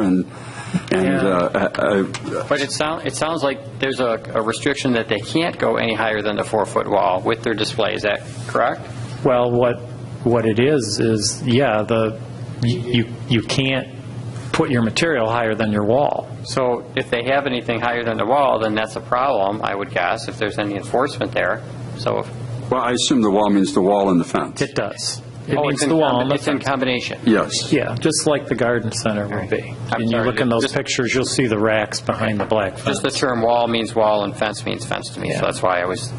and, and, uh, I- I- But it sounds, it sounds like there's a a restriction that they can't go any higher than the four-foot wall with their display, is that correct? Well, what, what it is, is, yeah, the, you, you can't put your material higher than your wall. So if they have anything higher than the wall, then that's a problem, I would guess, if there's any enforcement there. So, if- well, I assume the wall means the wall and the fence. It does. It oh, means it's in the wall. and combi- the it's in fence. combination. Yes. Yeah, just like the garden center would be. I'm And you sorry, look in those just- pictures, you'll see the racks behind the black fence. Just the term wall means wall and fence means fence to me, so Yeah. that's why I was,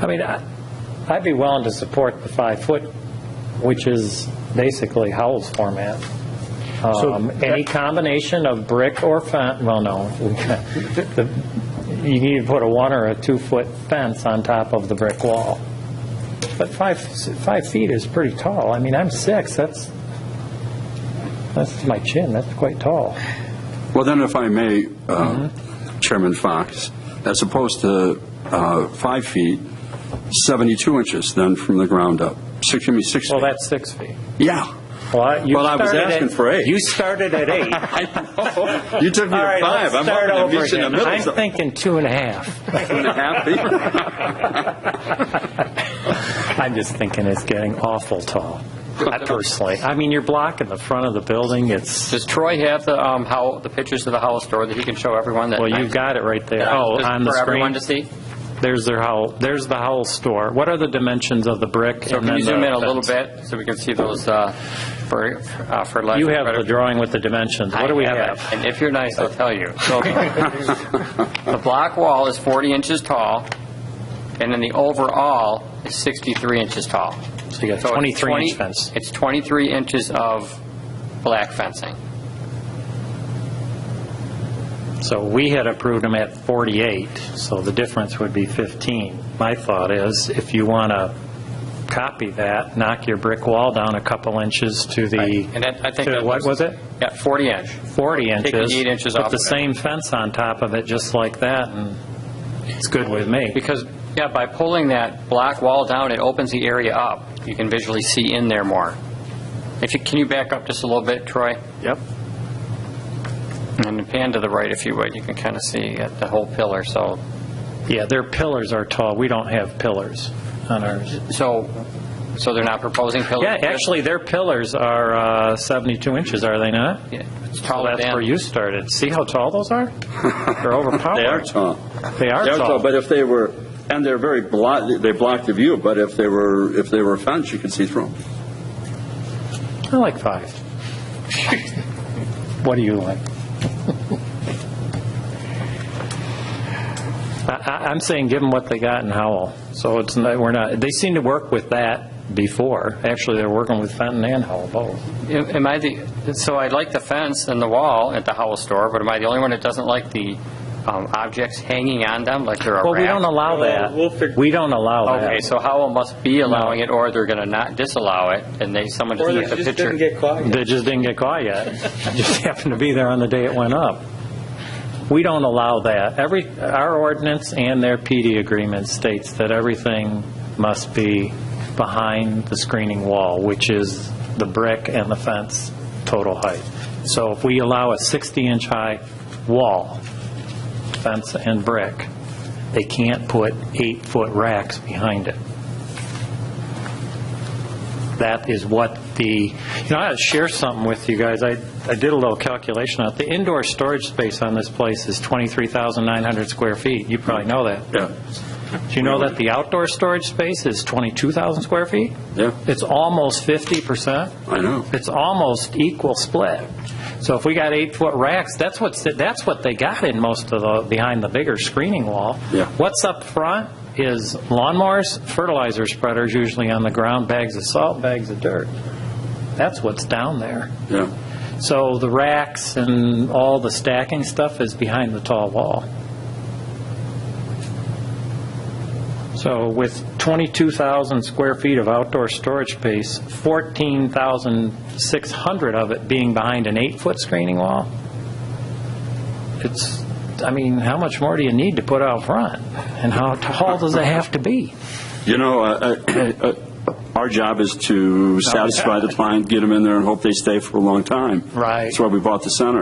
I mean, uh, I- I'd be willing to support the five-foot, which is basically Howell's format. Um, Any combination of brick or fence, well, no, The- you need to put a one or a two-foot fence on top of the brick wall. But five, five feet is pretty tall. I mean, I'm six, that's, that's my chin, that's quite tall. Well, then if I may, uh, Mm-hmm. Chairman Fox, as opposed to uh, five feet, 72 inches then from the ground up. Six, give me six Well, feet. that's six feet. Yeah. Well, I- you Well, I was started at- asking for eight. You started at eight. You took me All to right, five. let's I'm start hoping to over meet you in the again. middle. I'm somewhere. thinking two and a half. Two and a half feet. I'm just thinking it's getting awful tall, I personally. I mean, you're blocking the front of the building, it's, does Troy have the, um, how, the pictures of the Howell store that he can show everyone that? well, you've got it right there. Oh, Just on the For everyone to screen. see? There's their Howell, there's the Howell store. What are the dimensions of the brick? So and can you then zoom the in a little fence? bit so we can see those uh, for, uh, for life? You have the drawing with the dimensions. What do we have? And if you're nice, I'll tell you. So The block wall is 40 inches tall, and then the overall is 63 inches tall. So you got it's 23 inch 20 fence. It's 23 inches of black fencing. So we had approved them at 48, so the difference would be 15. My thought is, if you want to copy that, knock your brick wall down a couple inches to the, And that- I think to that what was it? Yeah, 40 inch. 40 Take the inches. eight inches off Put the of it. same fence on top of it, just like that, and it's good with me. Because, yeah, by pulling that black wall down, it opens the area up. You can visually see in there more. If you, can you back up just a little bit, Troy? Yep. And pan to the right if you would, you can kind of see uh, the whole pillar, so. Yeah, their pillars are tall. We don't have pillars on ours. So, so they're not proposing pillars? Yeah, actually, their pillars are uh, 72 inches, are they not? Yeah, It's Well, taller that's where than, you started. See how tall those are? They're overpowered. They are tall. They are They're tall. But if they were, and they're very block, they block the view, but if they were, if they were fenced, you could see through 'em. I like five. What do you like? I- I- I'm saying, give them what they got in Howell. So it's, not- we're not, they seem to work with that before. Actually, they're working with Fenton and Howell both. am I the, so I like the fence and the wall at the Howell store, but am I the only one that doesn't like the um, objects hanging on them, like they're a raft? Well, we don't allow we'll that. fig- We don't allow Okay, that. so Howell must be allowing it, or they're going to not disallow it, and they, someone just Or took they the just didn't picture. get caught. They just didn't get caught yet. Just happened to be there on the day it went up. We don't allow that. Every, our ordinance and their PD agreement states that everything must be behind the screening wall, which is the brick and the fence total height. So if we allow a 60-inch high wall, fence and brick, they can't put eight-foot racks behind it. That is what the, you know, I'll share something with you guys. I, I did a little calculation out. The indoor storage space on this place is 23,900 square feet. You probably know that. Yeah, Do you know that the outdoor storage space is 22,000 square feet? Yeah. It's almost 50%. I know. It's almost equal split. So if we got eight-foot racks, that's what, that's what they got in most of the, behind the bigger screening wall. Yeah. What's up front is lawnmowers, fertilizer spreaders usually on the ground, bags of salt, bags of dirt. That's what's down there. Yeah. So the racks and all the stacking stuff is behind the tall wall. So with 22,000 square feet of outdoor storage space, 14,600 of it being behind an eight-foot screening wall, it's, I mean, how much more do you need to put out front? And how tall does it have to be? You know, uh, uh, uh, our job is to satisfy the client, get them in there, and hope they stay for a long time. Right. That's why we bought the center.